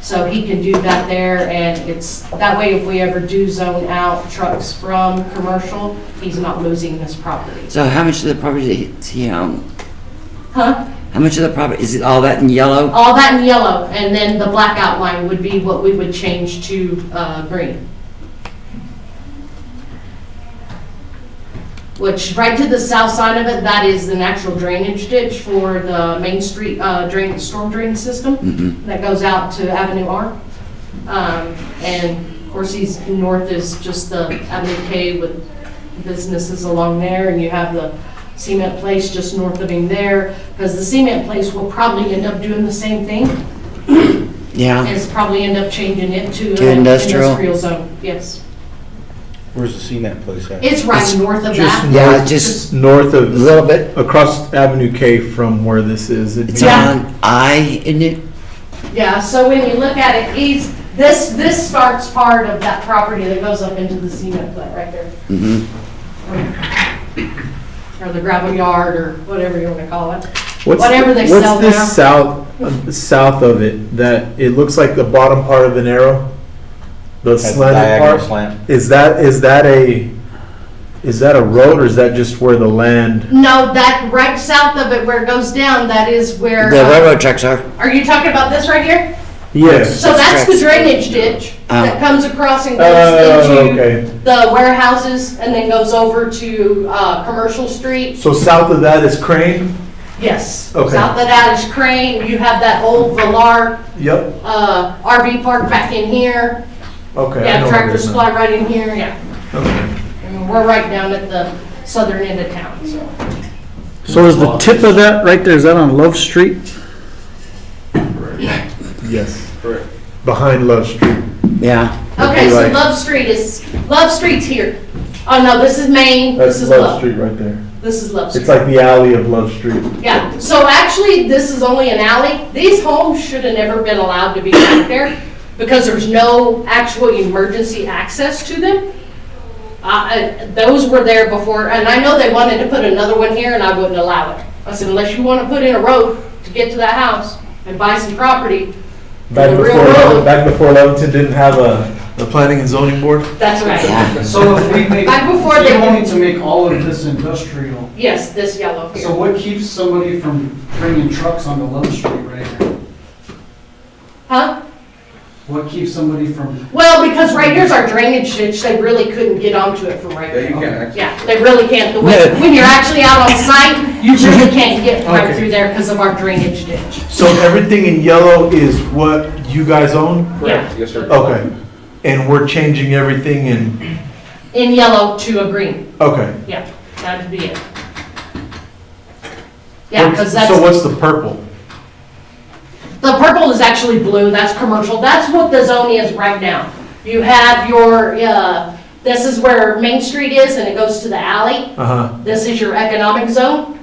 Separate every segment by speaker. Speaker 1: So he can do that there, and it's, that way if we ever do zone out trucks from commercial, he's not losing his property.
Speaker 2: So how much of the property does he own?
Speaker 1: Huh?
Speaker 2: How much of the property, is it all that in yellow?
Speaker 1: All that in yellow, and then the black outline would be what we would change to uh, green. Which, right to the south side of it, that is the natural drainage ditch for the Main Street uh, drain, storm drain system.
Speaker 2: Mm-hmm.
Speaker 1: that goes out to Avenue R. Um, And of course, he's, north is just the Avenue K with businesses along there, and you have the cement place just north of him there, because the cement place will probably end up doing the same thing,
Speaker 2: Yeah,
Speaker 1: it's probably end up changing it to
Speaker 2: To
Speaker 1: an
Speaker 2: industrial.
Speaker 1: industrial zone, yes.
Speaker 3: Where's the cement place at?
Speaker 1: It's right
Speaker 2: It's
Speaker 1: north of
Speaker 4: just-
Speaker 1: that.
Speaker 2: yeah, just
Speaker 4: north
Speaker 2: a
Speaker 4: of,
Speaker 2: little bit.
Speaker 4: across Avenue K from where this is. it'd
Speaker 2: It's
Speaker 4: be-
Speaker 1: Yeah.
Speaker 2: on I, isn't it?
Speaker 1: Yeah, so when you look at it, he's, this, this starts part of that property that goes up into the cement plant right there.
Speaker 2: Mm-hmm.
Speaker 1: or the gravel yard, or whatever you want to call it.
Speaker 4: What's-
Speaker 1: whatever they sell
Speaker 4: What's
Speaker 1: now.
Speaker 4: this south, uh, south of it, that it looks like the bottom part of an arrow? The
Speaker 3: That's
Speaker 4: slanted
Speaker 3: diagonal
Speaker 4: part?
Speaker 3: slant.
Speaker 4: Is that, is that a, is that a road or is that just where the land?
Speaker 1: No, that right south of it where it goes down, that is where,
Speaker 2: The
Speaker 1: uh,
Speaker 2: railroad tracks are.
Speaker 1: are you talking about this right here?
Speaker 4: Yes.
Speaker 1: So that's the
Speaker 2: That's correct.
Speaker 1: drainage ditch
Speaker 2: Oh.
Speaker 1: that comes across and goes
Speaker 4: Uh-huh. Oh,
Speaker 1: into
Speaker 4: okay.
Speaker 1: the warehouses and then goes over to uh, Commercial Street.
Speaker 4: So south of that is Crane?
Speaker 1: Yes. South of
Speaker 4: Okay.
Speaker 1: that is Crane, you have that old Velar
Speaker 4: Yep,
Speaker 1: uh, RV park back in here.
Speaker 4: okay. I
Speaker 1: Yeah,
Speaker 4: know where it
Speaker 1: tractor
Speaker 4: is now.
Speaker 1: supply right in here, yeah.
Speaker 4: Okay.
Speaker 1: I mean, We're right down at the southern end of town, so.
Speaker 5: So is the tip of that right there, is that on Love Street?
Speaker 4: Yes. Correct. Behind Love Street.
Speaker 2: Yeah,
Speaker 1: Okay, so
Speaker 4: Right.
Speaker 1: Love Street is, Love Street's here. Oh, no, this is Main, this
Speaker 4: That's
Speaker 1: is
Speaker 4: Love
Speaker 1: Love.
Speaker 4: Street right there.
Speaker 1: This is Love
Speaker 4: It's
Speaker 1: Street.
Speaker 4: like the alley of Love Street.
Speaker 1: Yeah, so actually, this is only an alley. These homes should have never been allowed to be back there because there's no actual emergency access to them. Uh, uh, Those were there before, and I know they wanted to put another one here, and I wouldn't allow it. I said, unless you want to put in a road to get to that house and buy some property,
Speaker 4: Back
Speaker 1: The real
Speaker 4: before,
Speaker 1: road.
Speaker 4: back before Leventon didn't have a. The planning and zoning board?
Speaker 1: that's right.
Speaker 2: yeah.
Speaker 6: So if we make,
Speaker 1: Back before they-
Speaker 6: you wanted to make all of this industrial,
Speaker 1: Yes, this yellow here.
Speaker 6: so what keeps somebody from bringing trucks onto Love Street right here?
Speaker 1: Huh?
Speaker 6: What keeps somebody from,
Speaker 1: Well, because right here's our drainage ditch, they really couldn't get onto it from right
Speaker 3: Yeah,
Speaker 1: there.
Speaker 3: you can actually.
Speaker 1: Yeah, they really can't, the way, when you're actually out on site, you really can't get right
Speaker 4: Okay.
Speaker 1: through there because of our drainage ditch.
Speaker 4: So everything in yellow is what you guys own?
Speaker 3: Correct, yes, sir.
Speaker 4: Okay. And we're changing everything in,
Speaker 1: In yellow to a green,
Speaker 4: okay.
Speaker 1: yeah, that'd be it. Yeah, because that's,
Speaker 4: So what's the purple?
Speaker 1: the purple is actually blue, that's commercial, that's what the zone is right now. You have your, uh, this is where Main Street is and it goes to the alley.
Speaker 4: Uh-huh.
Speaker 1: This is your economic zone.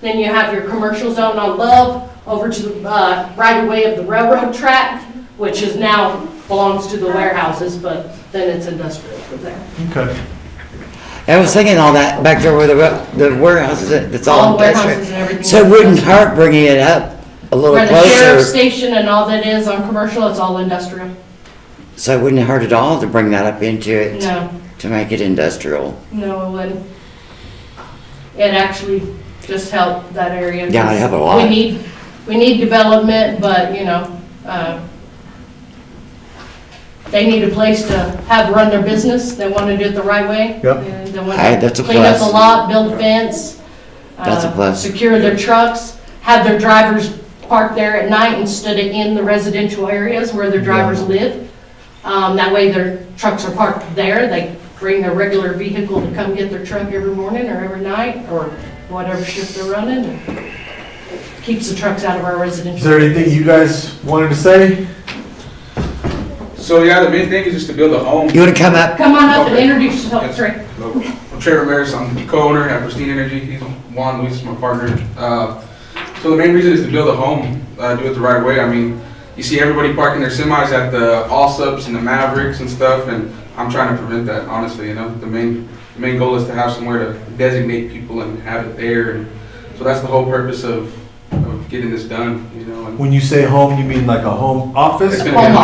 Speaker 1: Then you have your commercial zone on Love over to the uh, right away of the railroad track, which is now belongs to the warehouses, but then it's industrial from there.
Speaker 4: Okay.
Speaker 2: I was thinking all that back there where the, wa- the warehouse is, it's all
Speaker 1: the warehouses
Speaker 2: industrial.
Speaker 1: and everything.
Speaker 2: So it wouldn't hurt bringing it up a little
Speaker 1: Where the sheriff's
Speaker 2: closer.
Speaker 1: station and all that is on commercial, it's all industrial.
Speaker 2: So it wouldn't hurt at all to bring that up into it,
Speaker 1: No,
Speaker 2: to make it industrial.
Speaker 1: no, it wouldn't. It actually just helped that area.
Speaker 2: Yeah, it'd help a lot.
Speaker 1: We need, we need development, but, you know, uh, they need a place to have, run their business, they want to do it the right way.
Speaker 4: Yep.
Speaker 1: And They want
Speaker 2: Hey, that's a
Speaker 1: to clean up the
Speaker 2: plus.
Speaker 1: lot, build a fence. uh,
Speaker 2: That's a plus.
Speaker 1: Secure their trucks, have their drivers park there at night instead of in the residential areas where their drivers live. Um, That way their trucks are parked there, they bring their regular vehicle to come get their truck every morning or every night, or whatever shift they're running. and Keeps the trucks out of our
Speaker 4: Is
Speaker 1: residential.
Speaker 4: there anything you guys wanted to say?
Speaker 7: So yeah, the main thing is just to build a home.
Speaker 2: You wanna come up?
Speaker 1: Come on up and introduce yourself, Trey.
Speaker 7: I'm Trey Ramirez, I'm the co-owner at Pristine Energy, he's Juan Luis, my partner. Uh, So the main reason is to build a home, uh, do it the right way, I mean, you see everybody parking their semis at the Allsups and the Mavericks and stuff, and I'm trying to prevent that, honestly, you know? The main, the main goal is to have somewhere to designate people and have it there, and so that's the whole purpose of, of getting this done, you know? and-
Speaker 4: When you say home, you mean like a home office?
Speaker 7: It's gonna be
Speaker 1: Home
Speaker 7: a-